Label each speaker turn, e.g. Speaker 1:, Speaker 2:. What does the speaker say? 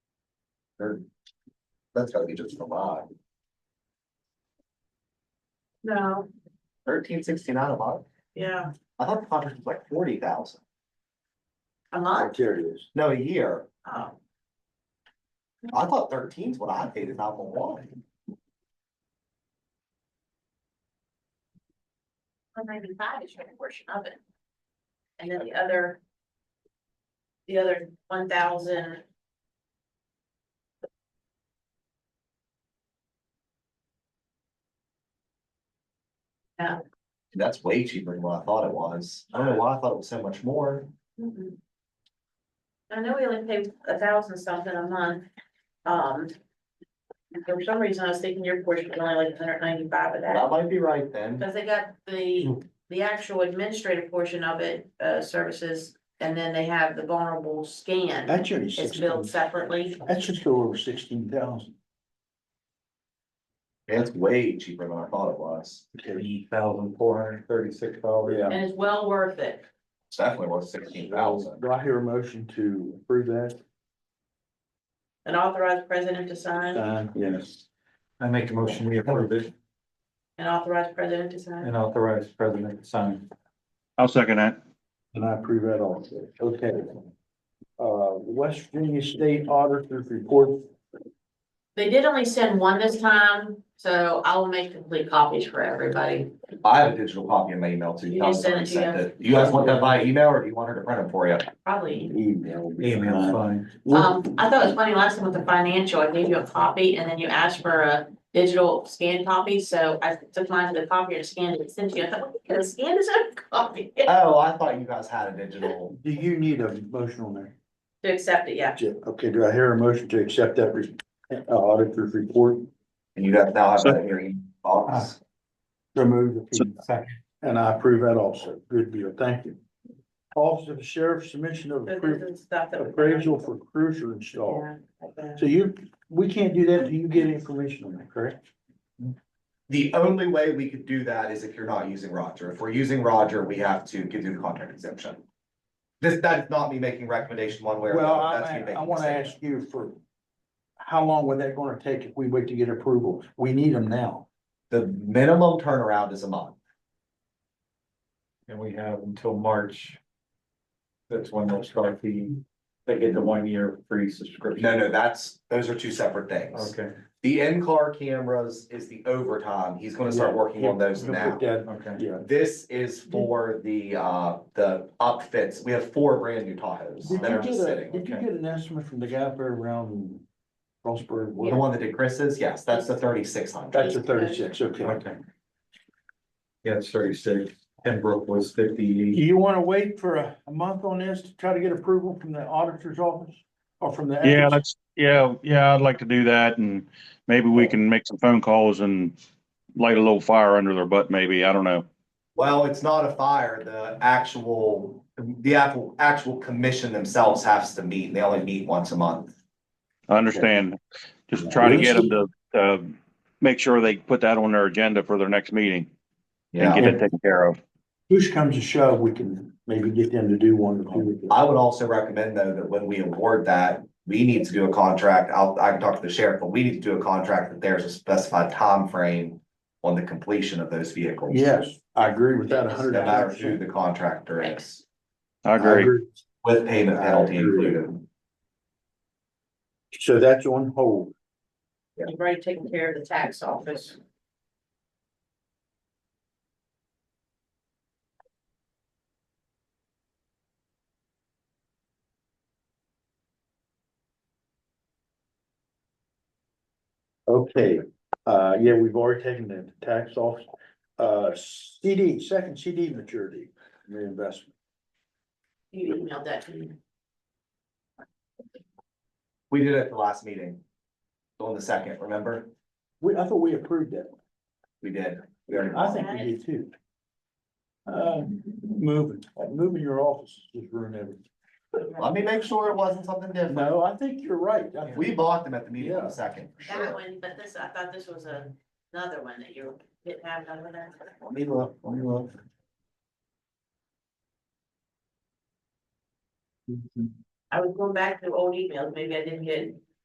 Speaker 1: There- That's gotta be just a lot.
Speaker 2: No,
Speaker 1: Thirteen sixty-nine a month?
Speaker 2: yeah,
Speaker 1: I thought the contract was like forty thousand.
Speaker 2: a lot.
Speaker 3: Curious.
Speaker 1: No, a year.
Speaker 2: Oh,
Speaker 1: I thought thirteen's what I paid in nine one one.
Speaker 2: one ninety-five is your portion of it. And then the other. The other one thousand.
Speaker 1: That's way cheaper than what I thought it was. I don't know why I thought it was so much more.
Speaker 2: mm-mm. I know we only pay a thousand something a month, um. and For some reason, I was thinking your portion was only like hundred ninety-five of that.
Speaker 1: That might be right then.
Speaker 2: Cause they got the, the actual administrative portion of it, uh, services, and then they have the vulnerable scan.
Speaker 3: That's your
Speaker 2: It's
Speaker 3: sixteen,
Speaker 2: billed separately.
Speaker 3: that's just go over sixteen thousand.
Speaker 1: Yeah, It's way cheaper than I thought it was.
Speaker 3: Three thousand four hundred thirty-six dollars. Yeah.
Speaker 2: And it's well worth it.
Speaker 1: It's definitely worth sixteen thousand.
Speaker 3: Do I hear a motion to approve that?
Speaker 2: An authorized president to sign,
Speaker 3: Uh, yes.
Speaker 4: I make a motion, we approve it
Speaker 2: an authorized president to sign.
Speaker 4: and authorize president to sign.
Speaker 5: I'll second that.
Speaker 3: And I approve that also. Okay. Uh, West Virginia State Auditor's Report.
Speaker 2: They did only send one this time, so I will make complete copies for everybody.
Speaker 1: I have a digital copy in my email too.
Speaker 2: You just sent it to
Speaker 1: Sent
Speaker 2: you?
Speaker 1: it. You guys want that by email or do you want her to print it for you?
Speaker 2: Probably.
Speaker 3: Email.
Speaker 4: Email fine.
Speaker 2: Um, I thought it was funny last time with the financial, I gave you a copy and then you asked for a digital scan copy, so I took mine to the copier and scanned it, and sent you. I thought, we could have scanned his own copy.
Speaker 1: Oh, I thought you guys had a digital.
Speaker 3: Do you need a motion on that?
Speaker 2: To accept it, yeah.
Speaker 3: Yeah, Okay, do I hear a motion to accept that re- uh, auditor's report?
Speaker 1: And you guys now have that in your email box.
Speaker 3: Remove the.
Speaker 4: Second.
Speaker 3: And I approve that also. Good deal. Thank you. Office of Sheriff submission of
Speaker 2: So
Speaker 3: appra-
Speaker 2: this is stuff that. we-
Speaker 3: appraisal for cruiser install.
Speaker 2: Yeah, like that.
Speaker 3: So you, we can't do that until you get information on that, correct?
Speaker 1: The only way we could do that is if you're not using Roger. If we're using Roger, we have to give you the contract exemption. This, that's not me making recommendation one way or
Speaker 3: Well,
Speaker 1: another. That's me
Speaker 3: I,
Speaker 1: making
Speaker 3: I
Speaker 1: a
Speaker 3: wanna
Speaker 1: statement.
Speaker 3: ask you for, how long would that gonna take if we wait to get approval? We need them now.
Speaker 1: The minimum turnaround is a month.
Speaker 4: And we have until March. That's when they'll start the, they get the one year free subscription.
Speaker 1: No, no, that's, those are two separate things.
Speaker 4: Okay,
Speaker 1: The in-car cameras is the overtime. He's gonna start working on those
Speaker 3: He'll put
Speaker 1: now.
Speaker 3: that-
Speaker 4: okay.
Speaker 3: Yeah.
Speaker 1: This is for the, uh, the upfits. We have four brand new Tahoes
Speaker 3: Did you
Speaker 1: that are
Speaker 3: get
Speaker 1: just
Speaker 3: a,
Speaker 1: sitting.
Speaker 3: did you
Speaker 4: okay.
Speaker 3: get an estimate from the guy up there around Frostburg?
Speaker 1: The one that did Chris's, yes, that's the thirty-six hundred.
Speaker 3: That's a thirty-six, okay.
Speaker 4: Okay. Yeah, it's thirty-six. Pembroke was fifty-eight.
Speaker 3: Do you wanna wait for a, a month on this to try to get approval from the auditor's office? Or from the?
Speaker 5: Yeah, that's, yeah, yeah, I'd like to do that and maybe we can make some phone calls and light a little fire under their butt, maybe. I don't know.
Speaker 1: Well, it's not a fire, the actual, the actual, actual commission themselves has to meet, and they only meet once a month.
Speaker 5: I understand. Just try to get them to, uh, make sure they put that on their agenda for their next meeting and get it taken care of.
Speaker 3: Push comes to shove, we can maybe get them to do one or two.
Speaker 1: I would also recommend though, that when we award that, we need to do a contract, I'll, I can talk to the sheriff, but we need to do a contract that there's a specified time frame on the completion of those vehicles.
Speaker 3: Yes, I agree with that a hundred
Speaker 1: No matter who
Speaker 3: percent.
Speaker 1: the contractor is,
Speaker 5: I agree.
Speaker 1: with payment penalty
Speaker 3: I agree.
Speaker 1: included.
Speaker 3: So that's on hold.
Speaker 2: You've already taken care of the tax office.
Speaker 3: Okay, uh, yeah, we've already taken the tax off. Uh, CD, second CD maturity reinvestment.
Speaker 2: You emailed that to me.
Speaker 1: We did it at the last meeting. On the second, remember?
Speaker 3: We, I thought we approved that.
Speaker 1: We did. We already-
Speaker 3: I think we did too. Uh, moving, moving your office just ruined everything.
Speaker 1: Let me make sure it wasn't something different.
Speaker 3: No, I think you're right. I think-
Speaker 1: We bought them at the meeting on
Speaker 3: Yeah.
Speaker 1: the second, for
Speaker 2: That
Speaker 1: sure.
Speaker 2: one, but this, I thought this was a- another one that you didn't have none of that.
Speaker 1: Let me look, let me look.
Speaker 2: I was going back to old emails, maybe I didn't get